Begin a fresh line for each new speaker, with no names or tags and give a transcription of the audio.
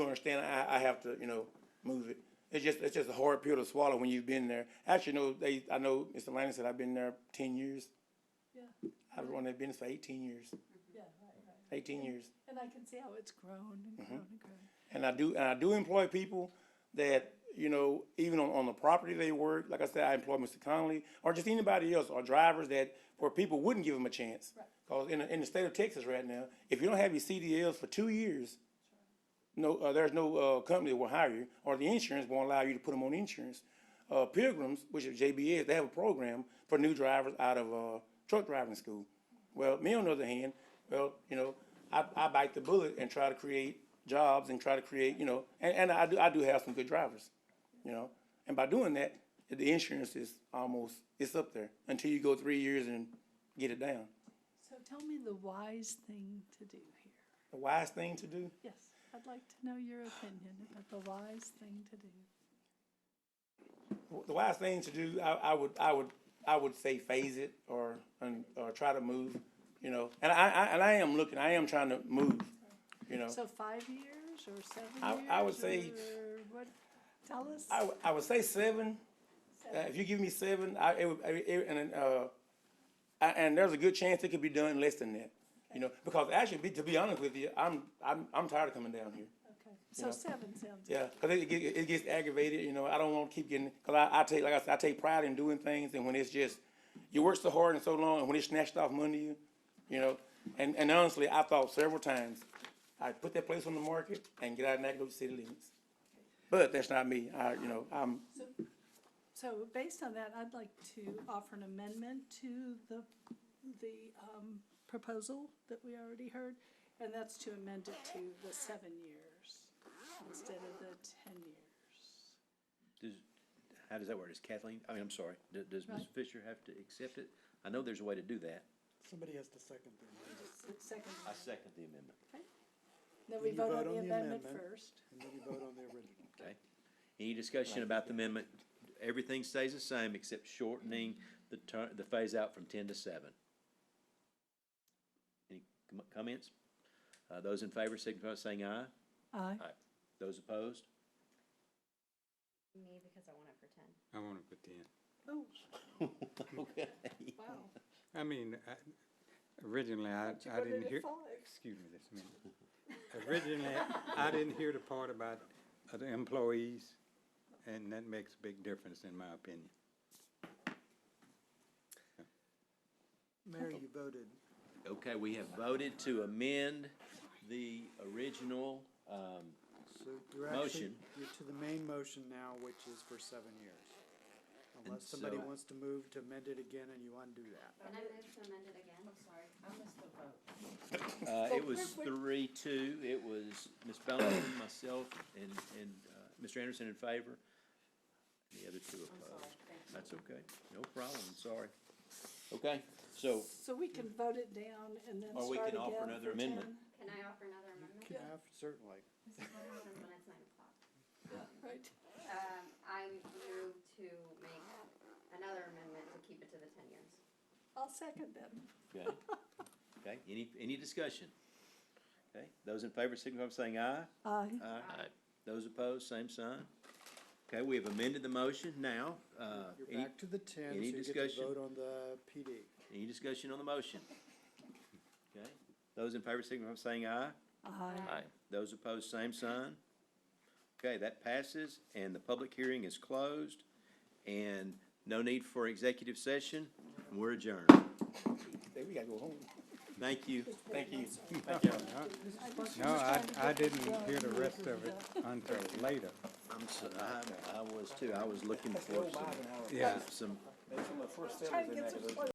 understand, I, I have to, you know, move it. It's just, it's just a hard pill to swallow when you've been there. Actually, no, they, I know Mr. Lanning said I've been there ten years.
Yeah.
I've run that business for eighteen years,
Yeah, right, right.
eighteen years.
And I can see how it's grown
Mm-hmm.
and grown and grown.
And I do, and I do employ people that, you know, even on, on the property they work, like I said, I employ Mr. Conley, or just anybody else, or drivers that, where people wouldn't give them a chance.
Right.
Cause in, the- in the state of Texas right now, if you don't have your CDLs for two years, no, uh, there's no, uh, company that will hire you, or the insurance won't allow you to put them on insurance. Uh, Pilgrims, which is JBS, they have a program for new drivers out of, uh, truck driving school. Well, me on the other hand, well, you know, I, I bite the bullet and try to create jobs and try to create, you know, and, and I do, I do have some good drivers, you know? And by doing that, the insurance is almost, it's up there until you go three years and get it down.
So tell me the wise thing to do here.
The wise thing to do,
Yes, I'd like to know your opinion about the wise thing to do.
the wise thing to do, I, I would, I would, I would say phase it or, and, or try to move, you know? And I, I, and I am looking, I am trying to move, you know?
So five years or seven years?
Oh. I- I would say-
or what, tell us.
I, would- I would say seven. Uh,
Seven.
if you give me seven, I, it would, it, it- and, then, uh, I, and there's a good chance it could be done less than that. You know, because actually, be- to be honest with you, I'm, I'm, I'm tired of coming down here.
Okay, so seven sounds good.
Yeah, because it, get- it gets aggravated, you know, I don't want to keep getting, because I, I take, like I said, I take pride in doing things, and when it's just, you work so hard and so long, and when it's snatched off money, you, you know, and, and honestly, I thought several times, I put that place on the market and get out and not go to city limits. But that's not me, I, you know, I'm,
So based on that, I'd like to offer an amendment to the, the um, proposal that we already heard, and that's to amend it to the seven years instead of the ten years.
Does, how does that work? Does Kathleen, I mean, I'm sorry, does, does Ms.
Right.
Fisher have to accept it? I know there's a way to do that.
Somebody has to second them,
Second,
I second the amendment.
then we
you
vote on the amendment first.
and then you vote on the original.
Okay. Any discussion about the amendment? Everything stays the same except shortening the turn, the phase out from ten to seven. Any com- comments? Uh, those in favor signify by saying aye.
Aye.
Those opposed?
Me, because I want it for ten.
I want to put ten.
Oh,
Okay.
wow.
I mean, I, originally, I,
Don't you
I
go to
didn't
the
hear,
five?
excuse me this minute. Originally, I didn't hear the part about other employees, and that makes a big difference in my opinion.
Mary, you voted.
Okay, we have voted to amend the original, um,
So you're actually,
Motion.
you're to the main motion now, which is for seven years. Unless somebody
so-
wants to move to amend it again and you undo that.
Can I move to amend it again? I'm sorry. I missed the vote.
Uh,
Well,
it was
perfect.
three, two, it was Ms. Bowen, myself, and, and, uh, Mr. Anderson in favor. The other two opposed. That's okay, no problem, sorry. Okay, so,
So we can vote it down and then
Or we
start
can
again
offer another
for
amendment.
10?
Can I offer another amendment?
Can have, certainly.
This is what happens when it's nine o'clock.
Right,
Um, I move to make another amendment to keep it to the ten years.
I'll second that.
okay. Okay, any, any discussion? Okay, those in favor signify by saying aye.
Aye.
Aye. Those opposed, same sign. Okay, we have amended the motion now, uh,
You're
any,
back to the ten, so
any
you get to
discussion?
vote on the PD.
any discussion on the motion? Okay, those in favor signify by saying aye.
Aye.
Those opposed, same sign. Okay, that passes, and the public hearing is closed, and no need for executive session, and we're adjourned.
we gotta go home.
Thank you.
Thank you.
No, I, I didn't hear the rest of it until later.
I'm so, I, I was too, I was looking for some,
Yeah.
some
There's some of the first
Trying
settlers in
to get
that
some
village.